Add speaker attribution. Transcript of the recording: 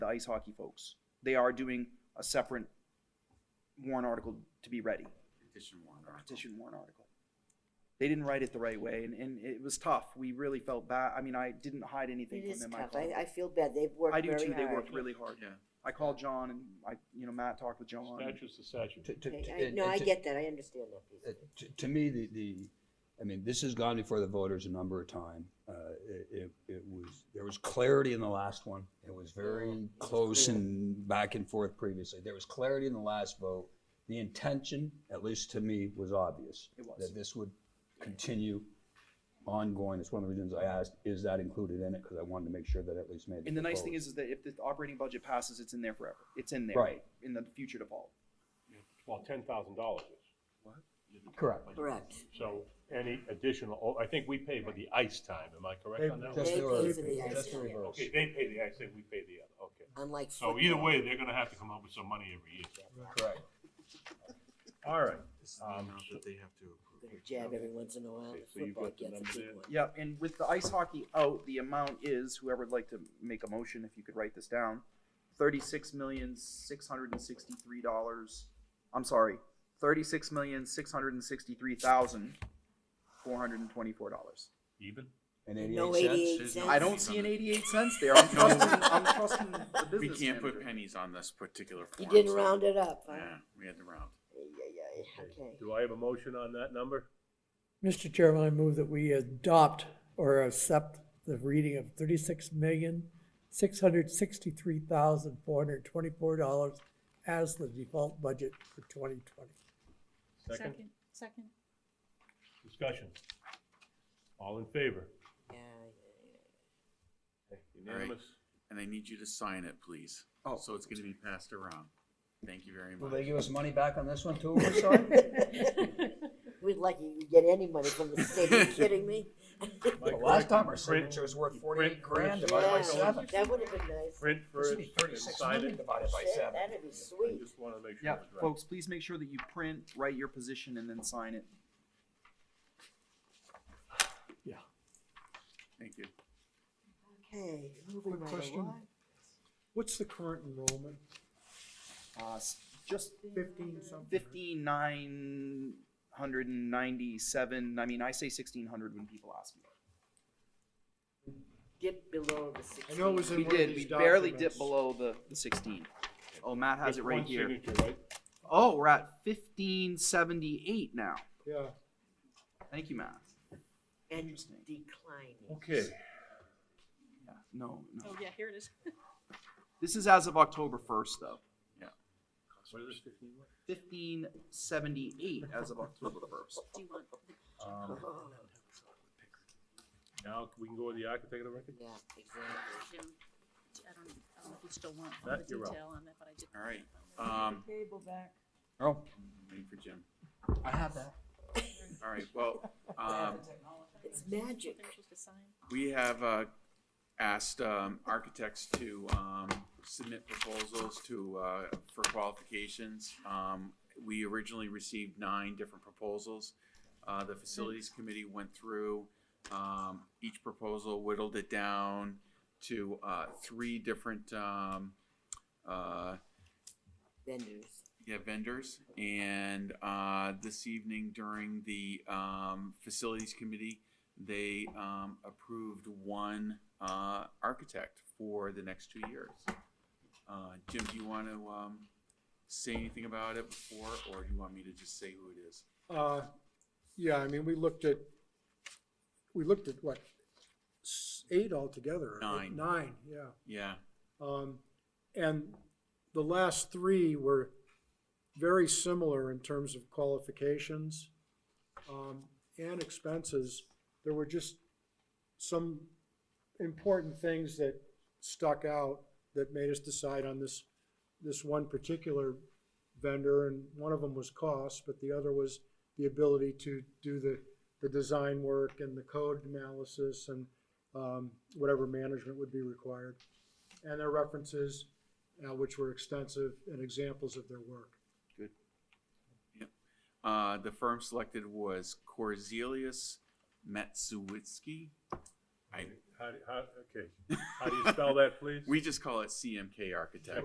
Speaker 1: the ice hockey folks. They are doing a separate warrant article to be ready,
Speaker 2: Petition warrant
Speaker 1: a
Speaker 2: article.
Speaker 1: petition warrant article. They didn't write it the right way, and, and it was tough. We really felt bad. I mean, I didn't hide anything
Speaker 3: It
Speaker 1: from
Speaker 3: is
Speaker 1: them. I
Speaker 3: tough.
Speaker 1: felt-
Speaker 3: I, I feel bad. They've worked
Speaker 1: I
Speaker 3: very
Speaker 1: do
Speaker 3: hard.
Speaker 1: too. They worked really hard.
Speaker 2: Yeah.
Speaker 1: I called John and I, you know, Matt talked with John. and-
Speaker 4: Statute's the statute.
Speaker 5: To- to- to-
Speaker 3: Okay, I-
Speaker 5: and-
Speaker 3: No,
Speaker 5: and
Speaker 3: I
Speaker 5: to-
Speaker 3: get that. I understand that piece.
Speaker 5: uh, To, to me, the, the, I mean, this has gone before the voters a number of time. Uh, it, it- it was, there was clarity in the last one. It was
Speaker 3: Yeah, it
Speaker 5: very
Speaker 3: was
Speaker 5: close
Speaker 3: Oh, clear.
Speaker 5: and back and forth previously. There was clarity in the last vote. The intention, at least to me, was obvious.
Speaker 1: It was.
Speaker 5: That this would continue ongoing. It's one of the reasons I asked, is that included in it? Because I wanted to make sure that at least made. it
Speaker 1: And the nice
Speaker 5: forward.
Speaker 1: thing is, is that if the operating budget passes, it's in there forever. It's in there.
Speaker 5: Right.
Speaker 1: In the future to follow.
Speaker 4: Well, ten thousand dollars is.
Speaker 5: Correct.
Speaker 3: Correct.
Speaker 4: So any additional, oh, I think we pay for the ice time, am I correct on that?
Speaker 5: Just
Speaker 3: They
Speaker 4: one?
Speaker 5: the
Speaker 3: pay
Speaker 5: reverse.
Speaker 3: for the
Speaker 5: Just the
Speaker 3: ice.
Speaker 5: reverse.
Speaker 4: Okay, they pay the ice, and we pay the other, okay.
Speaker 3: Unlike.
Speaker 4: So Oh, either
Speaker 3: football.
Speaker 4: way, they're gonna have to come up with some money every year.
Speaker 5: Correct.
Speaker 4: All right,
Speaker 2: This is the
Speaker 4: Um,
Speaker 2: amount that they have to
Speaker 3: I'm Gonna
Speaker 2: approve.
Speaker 3: jab every once in a while.
Speaker 4: Okay,
Speaker 3: The
Speaker 4: so you've
Speaker 3: Football
Speaker 4: got the
Speaker 3: gets a
Speaker 4: number
Speaker 3: big
Speaker 4: there?
Speaker 3: one.
Speaker 1: Yeah, and with the ice hockey out, the amount is, whoever'd like to make a motion, if you could write this down, thirty-six million, six hundred and sixty-three dollars, I'm sorry, thirty-six million, six hundred and sixty-three thousand, four hundred and twenty-four dollars.
Speaker 4: even?
Speaker 5: And
Speaker 3: No
Speaker 5: eighty-eight cents?
Speaker 3: eighty-eight
Speaker 2: There's no-
Speaker 3: cents.
Speaker 1: I don't see an eighty-eight cents there, I'm trusting, I'm trusting the
Speaker 2: We
Speaker 1: business
Speaker 2: can't put
Speaker 1: manager.
Speaker 2: pennies on this particular
Speaker 3: You
Speaker 2: form.
Speaker 3: didn't
Speaker 2: so-
Speaker 3: round it up, huh?
Speaker 2: Yeah, we had to round.
Speaker 3: Ay, ay, ay, Okay.
Speaker 4: Do I have a motion on that number?
Speaker 6: Mr. Chairman, I move that we adopt or accept the reading of thirty-six million, six hundred sixty-three thousand, four hundred twenty-four dollars as the default budget for twenty twenty.
Speaker 4: Second
Speaker 7: Second.
Speaker 4: discussion. All in favor?
Speaker 3: Yeah,
Speaker 4: Unanimous?
Speaker 2: And I need you to sign it, please.
Speaker 1: Oh.
Speaker 2: So it's gonna be passed around. Thank you very
Speaker 5: Will they
Speaker 2: much.
Speaker 5: give us money back on this one too? We're sorry?
Speaker 3: We'd like you to get any money from the state. Are you kidding me?
Speaker 4: Mike,
Speaker 5: Last time our
Speaker 4: print-
Speaker 5: signature was worth forty-eight
Speaker 4: print- print-
Speaker 5: grand divided by
Speaker 3: Yeah,
Speaker 5: seven.
Speaker 3: That would have been nice.
Speaker 4: Print
Speaker 5: This
Speaker 4: first
Speaker 5: would be
Speaker 4: and
Speaker 5: thirty-six
Speaker 4: sign
Speaker 5: million
Speaker 4: it.
Speaker 5: divided by
Speaker 3: Shit,
Speaker 5: seven.
Speaker 3: That'd be
Speaker 4: I
Speaker 3: sweet.
Speaker 4: just wanna make sure
Speaker 1: Yeah,
Speaker 4: it's right.
Speaker 1: folks, please make sure that you print, write your position, and then sign it.
Speaker 2: Thank you.
Speaker 3: Okay, moving
Speaker 6: Quick
Speaker 3: right
Speaker 6: question.
Speaker 3: along.
Speaker 6: What's the current enrollment?
Speaker 1: Uh, s- just
Speaker 6: Fifteen something?
Speaker 1: fifteen nine hundred and ninety-seven, I mean, I say sixteen hundred when people ask me.
Speaker 3: Dip below the six.
Speaker 6: I know it was
Speaker 1: We
Speaker 6: one of
Speaker 1: did, we
Speaker 6: these
Speaker 1: barely
Speaker 6: documents.
Speaker 1: dipped below the, the sixteen. Oh, Matt has
Speaker 4: Just
Speaker 1: it right
Speaker 4: one
Speaker 1: here.
Speaker 4: signature, right?
Speaker 1: Oh, we're at fifteen seventy-eight now.
Speaker 6: Yeah.
Speaker 1: Thank you, Matt.
Speaker 3: And
Speaker 1: Interesting.
Speaker 3: declining.
Speaker 4: Okay,
Speaker 1: Yeah, no, no.
Speaker 7: Oh, yeah, here it is.
Speaker 1: This is as of October first, though.
Speaker 4: what is this, 15?
Speaker 1: Fifteen seventy-eight as of October first.
Speaker 7: Do you want the
Speaker 5: Um,
Speaker 3: Oh,
Speaker 4: Now, we can go with the architect of record?
Speaker 3: Yeah, exactly.
Speaker 7: Jim, I don't, I don't know if you still want all
Speaker 4: That
Speaker 7: the
Speaker 4: you're up.
Speaker 7: detail on that, but I did.
Speaker 2: All right, um,
Speaker 7: Table back.
Speaker 5: Oh,
Speaker 2: wait for Jim.
Speaker 5: I have that.
Speaker 2: All right, well, um,
Speaker 3: It's magic.
Speaker 2: We have uh, asked um, architects to um, submit proposals to, uh, for qualifications. Um, We originally received nine different proposals. Uh, The facilities committee went through, um, each proposal whittled it down to uh, three different um, uh,
Speaker 3: Vendors.
Speaker 2: yeah, vendors. And uh, this evening during the um, facilities committee, they um, approved one uh, architect for the next two years. Uh, Jim, do you want to um, say anything about it before, or do you want me to just say who it is?
Speaker 8: Uh, Yeah, I mean, we looked at, we looked at what, s- eight altogether? right?
Speaker 2: Nine.
Speaker 8: Nine, yeah.
Speaker 2: Yeah,
Speaker 8: Um, And the last three were very similar in terms of qualifications um, and expenses. There were just some important things that stuck out that made us decide on this, this one particular vendor, and one of them was cost, but the other was the ability to do the, the design work and the code analysis and um, whatever management would be required. And their references, uh, which were extensive, and examples of their work.
Speaker 2: Uh, the firm selected was Corzilius Matsuwitsky. I-
Speaker 4: How, do- how, okay, how do you spell that, please?
Speaker 2: We just call it CMK Architects.